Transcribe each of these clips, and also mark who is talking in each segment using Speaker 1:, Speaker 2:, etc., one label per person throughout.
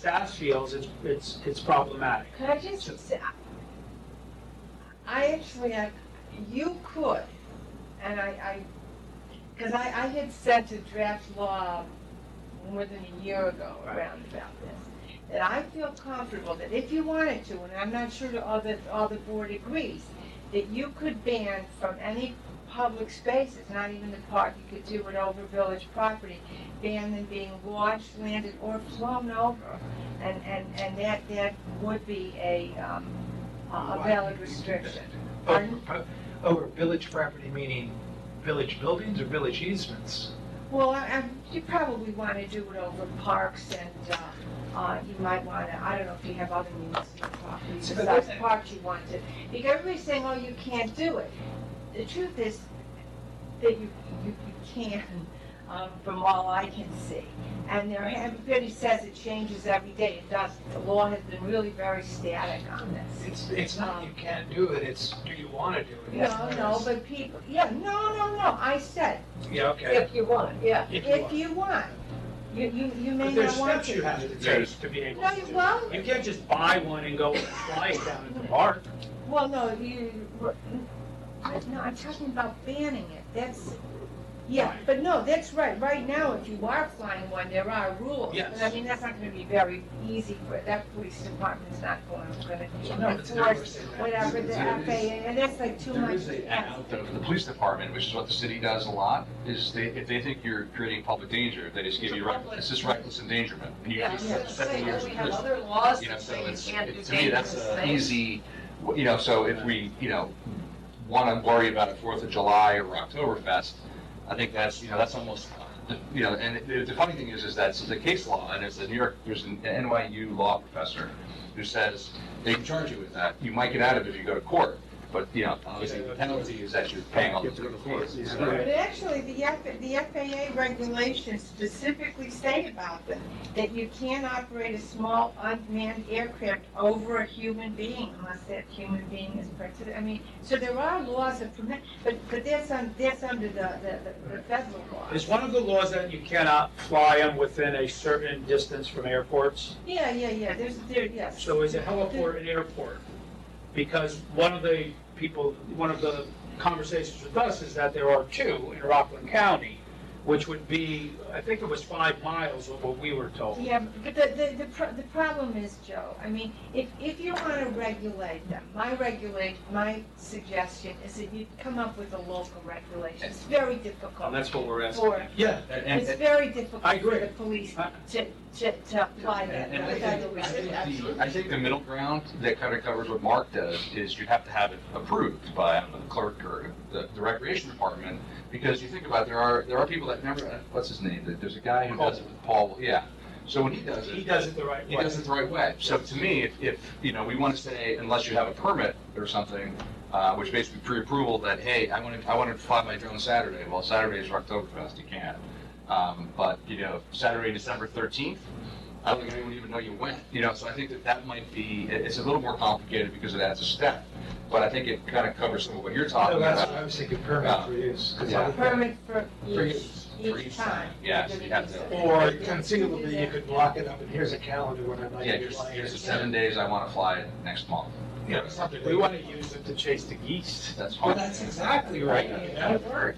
Speaker 1: fast fields, it's, it's, it's problematic.
Speaker 2: Could I just say, I actually, I- you could, and I, I, because I, I had said to draft law more than a year ago around about this, that I feel comfortable that if you wanted to, and I'm not sure that all the, all the board agrees, that you could ban from any public spaces, not even the park, you could do it over village property, ban them being washed, landed, or flown over. And, and, and that, that would be a, um, a a valid restriction.
Speaker 1: Oh.
Speaker 3: Over,
Speaker 1: Uh,
Speaker 3: over village property, meaning village buildings or village easements?
Speaker 2: Well, I, I, you probably want to do it over parks and, uh, uh, you might want to, I don't know if you have other municipal properties,
Speaker 3: So, but
Speaker 2: besides
Speaker 3: that's-
Speaker 2: parks you want to. Because everybody's saying, oh, you can't do it. The truth is that you, you, you can, um, from all I can see. And there, everybody says it changes every day. It doesn't. The law has been really very static on this.
Speaker 3: It's, it's not you can't do it, it's do you want to do it?
Speaker 2: No, no, but people, yeah, no, no, no, I said,
Speaker 3: Yeah, okay.
Speaker 2: if you want, yeah,
Speaker 3: If you
Speaker 2: if
Speaker 3: want.
Speaker 2: you want. You, you, you may
Speaker 1: But there's
Speaker 2: not want
Speaker 1: steps you
Speaker 2: to.
Speaker 1: have to take to be able
Speaker 2: No,
Speaker 1: to
Speaker 2: you
Speaker 1: do it.
Speaker 2: won't.
Speaker 1: You can't just buy one and go fly it down at the park.
Speaker 2: Well, no, you, no, I'm talking about banning it, that's, yeah, but no, that's right, right now, if you are flying one, there are rules.
Speaker 1: Yes.
Speaker 2: But I mean, that's not gonna be very easy for, that police department's not going,
Speaker 3: No,
Speaker 2: gonna
Speaker 3: it's not.
Speaker 2: enforce whatever the
Speaker 4: There
Speaker 2: FAA,
Speaker 4: is-
Speaker 2: and that's like too
Speaker 4: There
Speaker 2: much
Speaker 4: is
Speaker 2: to
Speaker 4: a
Speaker 2: ask.
Speaker 4: out though for the police department, which is what the city does a lot, is they, if they think you're creating public danger, they just give you, right- it's just reckless endangerment. And you
Speaker 5: Yeah, I
Speaker 4: have
Speaker 5: was
Speaker 4: to
Speaker 5: gonna
Speaker 4: get
Speaker 5: say,
Speaker 4: seven years
Speaker 5: don't we
Speaker 4: in
Speaker 5: have
Speaker 4: prison.
Speaker 5: other laws
Speaker 4: You know,
Speaker 5: that
Speaker 4: so
Speaker 5: say you
Speaker 4: it's,
Speaker 5: can't do
Speaker 4: it- to me, that's
Speaker 5: dangerous
Speaker 4: a
Speaker 5: things?
Speaker 4: easy, you know, so if we, you know, want to worry about a Fourth of July or Oktoberfest, I think that's, you know, that's almost, you know, and the- the funny thing is, is that it's a case law, and it's a New York, there's an NYU law professor who says they can charge you with that. You might get out of it if you go to court, but, you know, obviously the penalty is that you're paying all the fees.
Speaker 2: But actually, the F, the FAA regulations specifically say about them, that you can't operate a small unmanned aircraft over a human being unless that human being is present. I mean, so there are laws that permit, but, but that's on, that's under the, the, the- the federal law.
Speaker 1: Is one of the laws that you cannot fly them within a certain distance from airports?
Speaker 2: Yeah, yeah, yeah, there's, there, yes.
Speaker 1: So is a heliport an airport? Because one of the people, one of the conversations with us is that there are two in Rockland County, which would be, I think it was five miles of what we were told.
Speaker 2: Yeah, but the, the, the, pro- the problem is, Joe, I mean, if, if you want to regulate them, my regulate, my suggestion is that you come up with a local regulation. It's very difficult.
Speaker 4: And that's what we're asking.
Speaker 2: for
Speaker 1: Yeah.
Speaker 4: And- and-
Speaker 2: It's very difficult
Speaker 1: I
Speaker 2: for
Speaker 1: agree.
Speaker 2: the police
Speaker 1: I-
Speaker 2: to, to, to apply that.
Speaker 4: And I
Speaker 2: That's
Speaker 4: think-
Speaker 2: the way
Speaker 4: I
Speaker 2: it
Speaker 4: think
Speaker 2: is.
Speaker 4: the- I think the middle ground that kind of covers what Mark does is you have to have it approved by the clerk or the, the recreation department. Because you think about, it, there are, there are people that never, what's his name? There- There's a guy who does it with Paul, yeah. So when he does
Speaker 1: He
Speaker 4: it,
Speaker 1: does it the right
Speaker 4: he
Speaker 1: way.
Speaker 4: does it the right way. So to me, if, if, you know, we want to say unless you have a permit or something, uh, which basically pre-approval that, hey, I want to, I want to fly my drone Saturday. Well, Saturday is Oktoberfest, you can't. Um, but, you know, Saturday, December thirteenth, I don't think anyone even know you went, you know, so I think that that might be, it- it's a little more complicated because it adds a step. But I think it kind of covers some of what you're talking
Speaker 3: No, that's,
Speaker 4: about.
Speaker 3: what I was thinking permit for use. 'cause I-
Speaker 2: A Permit for
Speaker 4: For
Speaker 2: each,
Speaker 4: use- for
Speaker 2: each time.
Speaker 4: Yeah, so you have to,
Speaker 3: Or conceivably, you could block it up and here's a calendar when I'd like
Speaker 4: yeah,
Speaker 3: to
Speaker 4: here's,
Speaker 3: fly.
Speaker 4: here's the seven days I want to fly it next month.
Speaker 3: Yeah, something.
Speaker 1: We want to use it to chase the geese.
Speaker 4: That's
Speaker 3: Well,
Speaker 4: fine.
Speaker 3: that's exactly right. That'd work.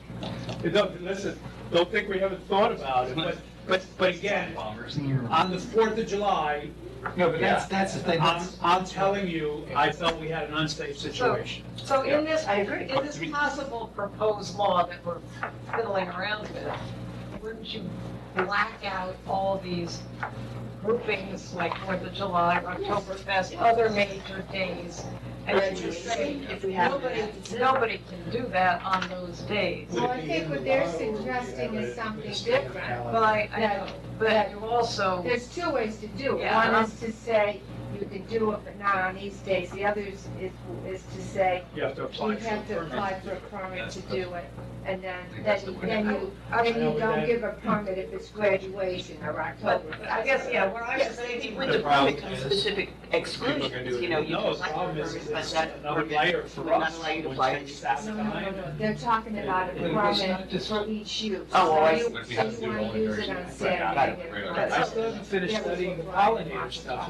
Speaker 1: Don't, listen, don't think we haven't thought about it, but, but, but again,
Speaker 4: Bombers.
Speaker 1: on the Fourth of July,
Speaker 3: No, but that's, that's the thing.
Speaker 1: I'm,
Speaker 3: that's-
Speaker 1: I'm telling you, I felt we had an unsafe situation.
Speaker 5: So in this,
Speaker 4: I agree.
Speaker 5: in this possible proposed law that we're fiddling around with, wouldn't you black out all these groupings like Fourth of July, Oktoberfest, other major days? And then just say, nobody, nobody can do that on those days.
Speaker 2: Well, I think what they're suggesting is something different.
Speaker 5: But I, I know, but you also,
Speaker 2: There's two ways to do it.
Speaker 5: Yeah.
Speaker 2: One is to say you can do it, but not on these days. The other is, is, is to say
Speaker 1: You have to
Speaker 2: you
Speaker 1: apply for a
Speaker 2: have to
Speaker 1: permit.
Speaker 2: apply for a permit to do it. and then,
Speaker 4: think
Speaker 2: then
Speaker 4: that's the
Speaker 2: you,
Speaker 4: way to
Speaker 2: then
Speaker 5: go.
Speaker 2: you, then
Speaker 1: I know
Speaker 2: you don't
Speaker 1: that-
Speaker 2: give a permit if it's graduation or
Speaker 5: But
Speaker 2: October.
Speaker 5: I guess, yeah, where I was
Speaker 6: Yes,
Speaker 5: saying,
Speaker 6: with the
Speaker 1: The problem
Speaker 6: permit comes
Speaker 1: is,
Speaker 6: specific exclusions, you know, you
Speaker 1: No, the
Speaker 6: can apply for
Speaker 1: problem is,
Speaker 6: permits, but
Speaker 1: it's
Speaker 6: that
Speaker 1: another
Speaker 6: permit
Speaker 1: layer
Speaker 6: would
Speaker 1: for
Speaker 6: not
Speaker 1: us,
Speaker 6: allow you to
Speaker 1: which
Speaker 6: apply. for
Speaker 1: takes that
Speaker 2: No, no, no,
Speaker 1: time.
Speaker 2: no, they're talking about a
Speaker 3: But it was
Speaker 2: permit
Speaker 3: not just-
Speaker 2: for each use.
Speaker 6: Oh, well,
Speaker 2: So
Speaker 6: I see.
Speaker 2: you-
Speaker 4: But we have
Speaker 2: so
Speaker 4: to
Speaker 2: you
Speaker 4: do it
Speaker 2: wanna
Speaker 4: all in
Speaker 2: use it
Speaker 4: various
Speaker 2: on
Speaker 4: ways. Right,
Speaker 2: Saturday
Speaker 4: I got it.
Speaker 2: and
Speaker 4: Right,
Speaker 2: Sunday.
Speaker 4: right,
Speaker 3: I still haven't finished studying the pollinator stuff.